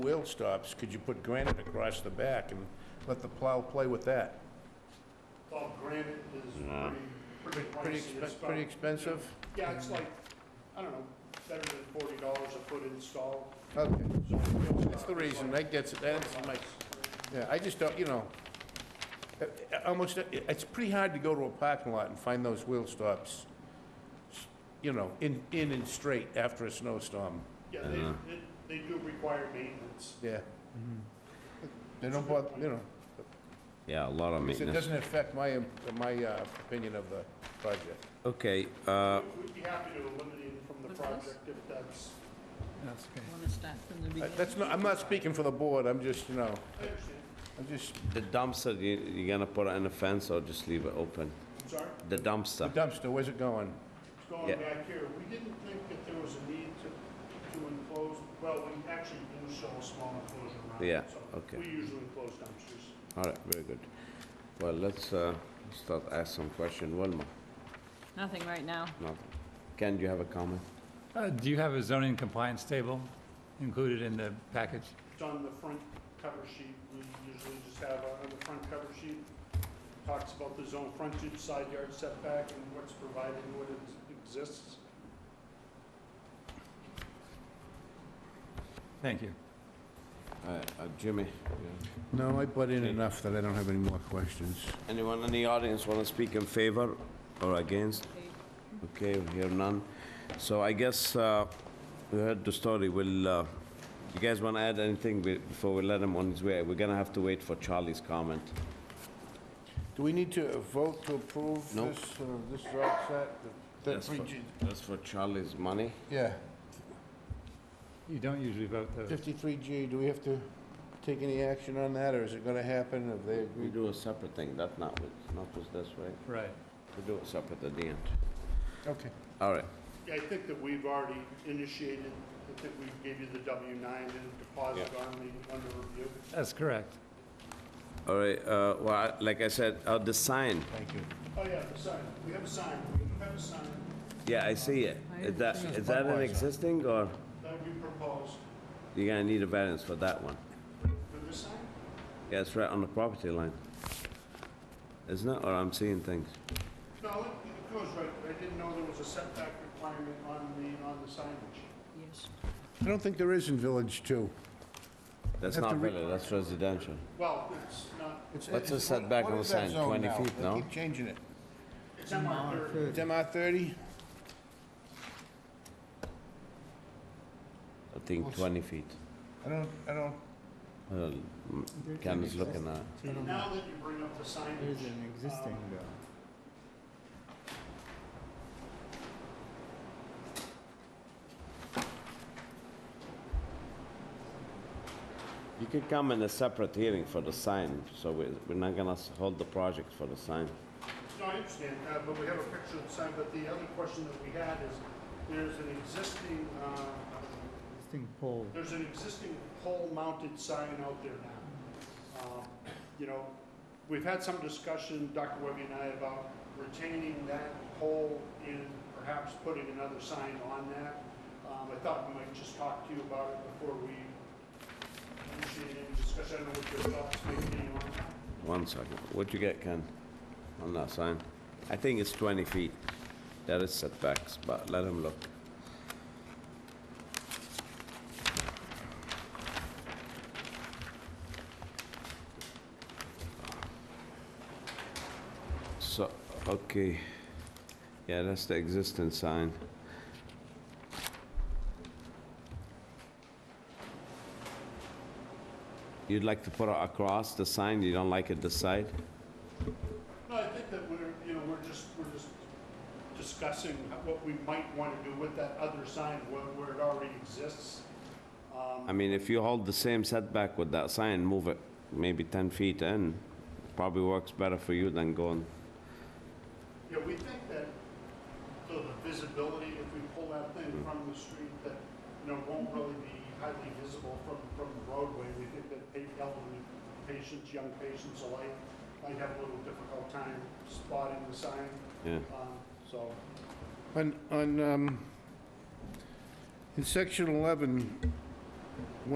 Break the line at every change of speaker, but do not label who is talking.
wheel stops, could you put granite across the back and let the plow play with that?
Well, granite is pretty,
Pretty,
pretty pricey. It's
expe- pretty
about-
expensive?
Yeah, it's like, I don't know, better than forty dollars a foot install.
Okay,
So
that's the reason, that gets, that's my, yeah, I just don't, you know, uh, uh, almost, uh, it's pretty hard to go to a parking lot and find those wheel stops, you know, in, in and straight after a snowstorm,
Yeah, they, they- they do require maintenance.
yeah. Mm-hmm. They don't bother, you know,
Yeah, a lot of
'cause it
maintenance.
doesn't affect my, um, my uh, opinion of the project.
Okay, uh,
We'd be happy to eliminate it from the
What's this?
project if that's,
That's okay.
Want to start from the
Uh,
beginning?
That's not, I'm not speaking for the board, I'm just, you know,
I understand.
I'm just
the dumpster, you, you gonna put it in a fence or just leave it open?
I'm sorry,
The
The
dumpster,
dumpster, where's it going?
it's going
Yeah.
back here. We didn't think that there was a need to, to enclose, well, we actually do sell a small enclosure around. it,
Yeah,
so
okay.
We usually enclose dumpsters.
all right, very good. Well, let's, uh, start ask some question, Wilma,
Nothing right now.
nothing. Ken, do you have a comment?
Uh, Do you have a zoning compliance table included in the package?
It's on the front cover sheet, we usually just have uh, on the front cover sheet, talks about the zone frontage, side yard setback, and what's provided, and what it exists.
Thank you.
All right, uh, Jimmy,
No, I butt in enough that I don't have any more questions.
anyone in the audience wanna speak in favor or against? Okay, we hear none. So I guess, uh, we heard the story, will, uh, you guys wanna add anything be- before we let him on his way? We're gonna have to wait for Charlie's comment.
Do we need to uh, vote to approve
No.
this? uh, This is all set? The- the
That's
three
for-
G-
That's for Charlie's money?
Yeah,
You don't usually vote those.
53G, do we have to take any action on that, or is it gonna happen if they
We
agree?
do a separate thing, that not with, not with this, right?
Right.
We do it separate at the end.
Okay.
All right,
Yeah, I think that we've already initiated, I think we gave you the W nine and deposit on the, under review.
That's correct.
all right, uh, well, I- like I said, uh, the sign,
Thank you.
Oh, yeah, the sign, we have a sign, we do have a sign
yeah, I see it. Is that, is that an existing, or
that we proposed
you're gonna need a variance for that one?
for this sign.
Yeah, it's right on the property line. Isn't it, or I'm seeing things?
No, it- it goes right, I didn't know there was a setback requirement on the, on the signage.
Yes.
I don't think there is in Village 2.
That's
Have to
not
re-
really, that's residential.
Well, it's not,
It's-
What's the
it's- what-
setback
what
on
is
the
that
sign?
zone
20
now?
feet,
They
no?
keep changing it.
it's MR thirty.
It's MR 30?
I think
Close.
20 feet.
I don't, I don't,
Well, m- Ken is looking at,
Now that you bring up the signage. um,
you could come in a separate hearing for the sign, so we- we're not gonna s- hold the project for the sign.
No, I understand, uh, but we have a picture of the sign, but the other question that we had is, there's an existing, uh,
Existing pole.
there's an existing pole-mounted sign out there now. Um, You know, we've had some discussion, Dr. Webby and I, about retaining that pole and perhaps putting another sign on that. Um, I thought we might just talk to you about it before we initiate any discussion, I don't know what your thoughts may be on that.
One second, what'd you get, Ken, on that sign? I think it's 20 feet. That is setbacks, but let him look. So, okay, yeah, that's the existing sign. You'd like to put it across the sign, you don't like it this side?
No, I think that we're, you know, we're just, we're just discussing what we might want to do with that other sign where, where it already exists. Um,
I mean, if you hold the same setback with that sign, move it maybe 10 feet in, probably works better for you than going,
Yeah, we think that, so the visibility, if we pull that thing from the street, that, you know, won't really be highly visible from, from the roadway. We think that pa- elderly patients, young patients alike, might have a little difficult time spotting the sign,
yeah.
um, so.
On, on, um, in section 11,